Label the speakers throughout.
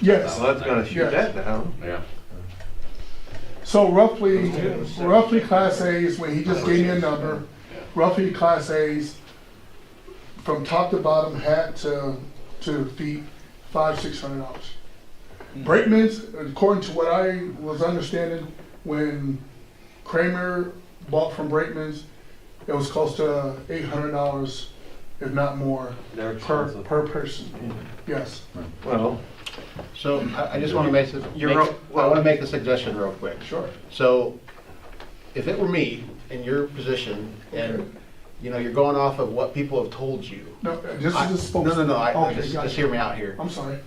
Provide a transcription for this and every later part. Speaker 1: Yes.
Speaker 2: Well, that's gonna shoot
Speaker 1: Yes.
Speaker 2: that down.
Speaker 3: Yeah.
Speaker 1: So roughly, roughly Class As, when he just gave me a number, roughly Class As, from top to bottom, hat to, to feet, five, six hundred dollars.
Speaker 4: Hmm.
Speaker 1: Brakeman's, according to what I was understanding, when Kramer bought from Brakeman's, it was close to eight hundred dollars, if not more,
Speaker 2: They're
Speaker 1: per,
Speaker 2: expensive.
Speaker 1: per person.
Speaker 4: Hmm.
Speaker 1: Yes.
Speaker 2: Well,
Speaker 4: So I, I just want to make, this-
Speaker 2: You're
Speaker 4: make-
Speaker 2: real-
Speaker 4: I want to make the suggestion real quick.
Speaker 1: Sure.
Speaker 4: So if it were me in your position and, you know, you're going off of what people have told you.
Speaker 1: No, this
Speaker 4: I-
Speaker 1: is a spokesman.
Speaker 4: No, no, no, I- I,
Speaker 1: Okay,
Speaker 4: just,
Speaker 1: gotcha.
Speaker 4: just hear me out here.
Speaker 1: I'm sorry.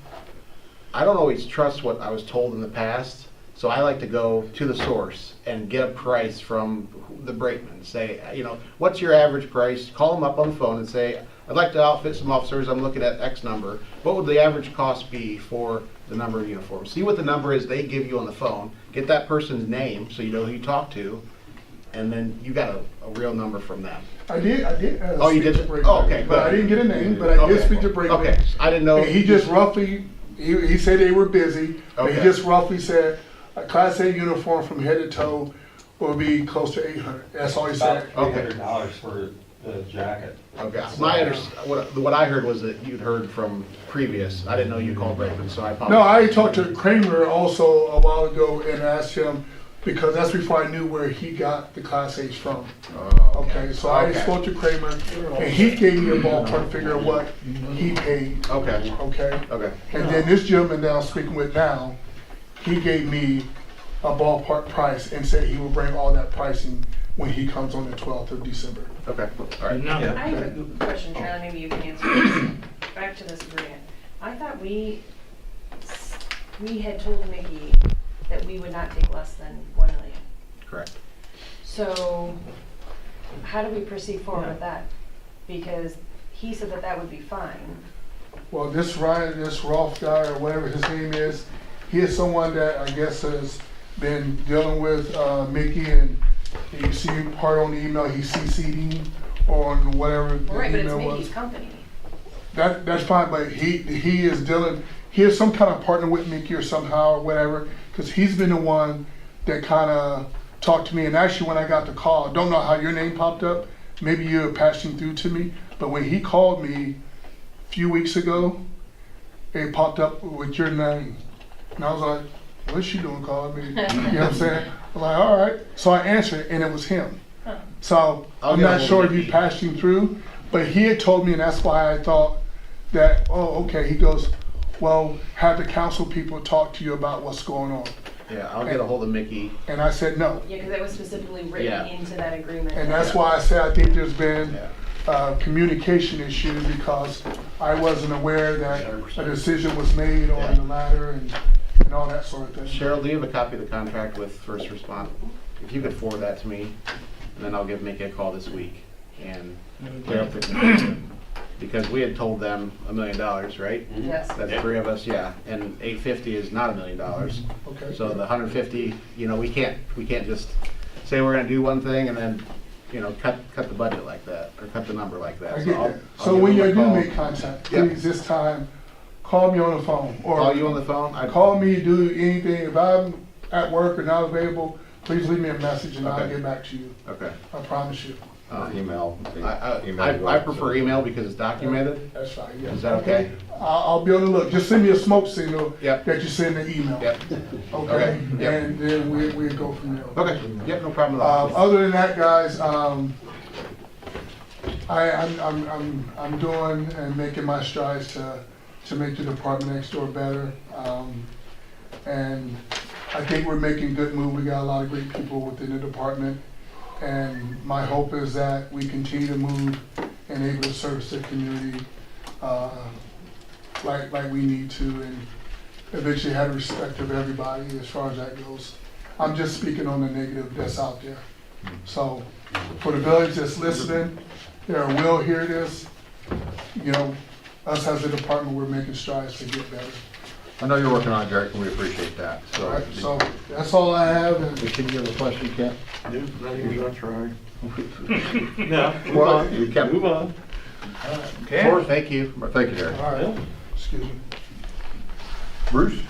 Speaker 4: I don't always trust what I was told in the past, so I like to go to the source and get a price from the brakeman. Say, you know, what's your average price? Call them up on the phone and say, I'd like to outfit some officers. I'm looking at X number. What would the average cost be for the number of uniforms? See what the number is they give you on the phone. Get that person's name so you know who you talk to, and then you got a, a real number from them.
Speaker 1: I did, I did. Uh,
Speaker 4: Oh, you
Speaker 1: speak
Speaker 4: did?
Speaker 1: to Brady.
Speaker 4: Oh, okay,
Speaker 1: But I didn't
Speaker 4: good.
Speaker 1: get a name, but I did
Speaker 4: Okay.
Speaker 1: speak to Brady.
Speaker 4: Okay, I didn't know.
Speaker 1: And he just roughly, he, he said they were busy, but he
Speaker 4: Okay.
Speaker 1: just roughly said a Class A uniform from head to toe will be close to 800. That's all he
Speaker 5: About
Speaker 1: said.
Speaker 5: three hundred dollars for the jacket.
Speaker 4: Okay, my, under- what, what I heard was that you'd heard from previous, I didn't know you called Raven, so I
Speaker 1: No,
Speaker 4: apologize.
Speaker 1: I talked to Kramer also a while ago and asked him because that's before I knew where he got the Class A's from. Okay, so I
Speaker 4: Oh, Okay.
Speaker 1: spoke to Kramer and he gave me a ballpark figure of what he paid.
Speaker 4: Okay,
Speaker 1: Okay.
Speaker 4: okay,
Speaker 1: And then this gentleman that I'm speaking with now, he gave me a ballpark price and said he will bring all that pricing when he comes on the twelfth of December.
Speaker 4: okay, all right.
Speaker 2: yeah.
Speaker 6: I have a question, Charlie, maybe you can answer this. Back to this grant. I thought we, we had told Mickey that we would not take less than one million.
Speaker 4: Correct.
Speaker 6: So how do we proceed forward with that? Because he said that that would be fine.
Speaker 1: Well, this Ryan, this Rolf guy or whatever his name is, he is someone that I guess has been dealing with, uh, Mickey and you see part on the email, he CC'd him on whatever the email was.
Speaker 6: Right, but it's Mickey's company.
Speaker 1: That, that's fine, but he, he is dealing, he is some kind of partner with Mickey or somehow or whatever, because he's been the one that kind of talked to me. And actually, when I got the call, I don't know how your name popped up. Maybe you were passing through to me, but when he called me a few weeks ago, it popped up with your name. And I was like, what's she doing calling me? You know what I'm saying? I'm like, all right. So I answered, and it was him. So
Speaker 4: I'll
Speaker 1: I'm
Speaker 4: get
Speaker 1: not
Speaker 4: ahold
Speaker 1: sure if
Speaker 4: of
Speaker 1: you
Speaker 4: Mickey.
Speaker 1: passed him through, but he had told me, and that's why I thought that, oh, okay. He goes, well, have the council people talk to you about what's going on.
Speaker 4: Yeah, I'll get a hold of Mickey.
Speaker 1: And I said, no.
Speaker 6: Yeah, because that was specifically
Speaker 4: Yeah.
Speaker 6: written into that agreement.
Speaker 1: And that's why I say I think there's been
Speaker 4: Yeah.
Speaker 1: a communication issue because I wasn't aware that a
Speaker 4: 100%.
Speaker 1: decision was made
Speaker 4: Yeah.
Speaker 1: on the ladder and, and all that sort of thing.
Speaker 4: Cheryl, do you have a copy of the contract with First Respond? If you could forward that to me, and then I'll give Mickey a call this week and clear up the confusion. Because we had told them a million dollars, right?
Speaker 6: Yes.
Speaker 4: That's three of us, yeah, and eight fifty is not a million dollars.
Speaker 1: Okay.
Speaker 4: So the hundred fifty, you know, we can't, we can't just say we're gonna do one thing and then, you know, cut, cut the budget like that, or cut the number like that.
Speaker 1: I
Speaker 4: So
Speaker 1: get
Speaker 4: I'll-
Speaker 1: that.
Speaker 4: I'll
Speaker 1: So
Speaker 4: give
Speaker 1: when
Speaker 4: them a
Speaker 1: you do
Speaker 4: call.
Speaker 1: make contact,
Speaker 4: Yeah.
Speaker 1: please this time, call me on the phone or.
Speaker 4: Call you on the phone? I-
Speaker 1: Call me, do anything. If I'm at work or not available, please leave me a message and I'll
Speaker 4: Okay.
Speaker 1: get back to you.
Speaker 4: Okay.
Speaker 1: I promise you.
Speaker 4: Uh,
Speaker 7: Email.
Speaker 4: I, I- I, I prefer email because it's documented.
Speaker 1: That's fine, yeah.
Speaker 4: Is that okay?
Speaker 1: I'll, I'll be on the look. Just send me a smoke signal
Speaker 4: Yep.
Speaker 1: that you send an email.
Speaker 4: Yep,
Speaker 1: Okay,
Speaker 4: Okay, yep.
Speaker 1: and then we, we go from there.
Speaker 4: okay, yep, no problem at
Speaker 1: Um,
Speaker 4: all.
Speaker 1: other than that, guys, um, I, I'm, I'm, I'm, I'm doing and making my strides to, to make the department next door better. Um, and I think we're making good move. We got a lot of great people within the department. And my hope is that we continue to move and able to service the community, uh, like, like we need to and eventually have respect of everybody as far as that goes. I'm just speaking on the negative that's out there. So for the village that's listening, there will hear this, you know, us as a department, we're making strides to get better.
Speaker 7: I know you're working on it, Derek, and we appreciate that,
Speaker 1: All
Speaker 7: so.
Speaker 1: right, so that's all I have and
Speaker 7: Can you have a question, Kent?
Speaker 2: Dude, not even gonna try. No, move
Speaker 7: Well,
Speaker 2: on.
Speaker 7: you kept-
Speaker 2: Move on.
Speaker 4: Of course, Thank you.
Speaker 7: Thank you, Derek.
Speaker 1: All right, excuse me.
Speaker 7: Bruce?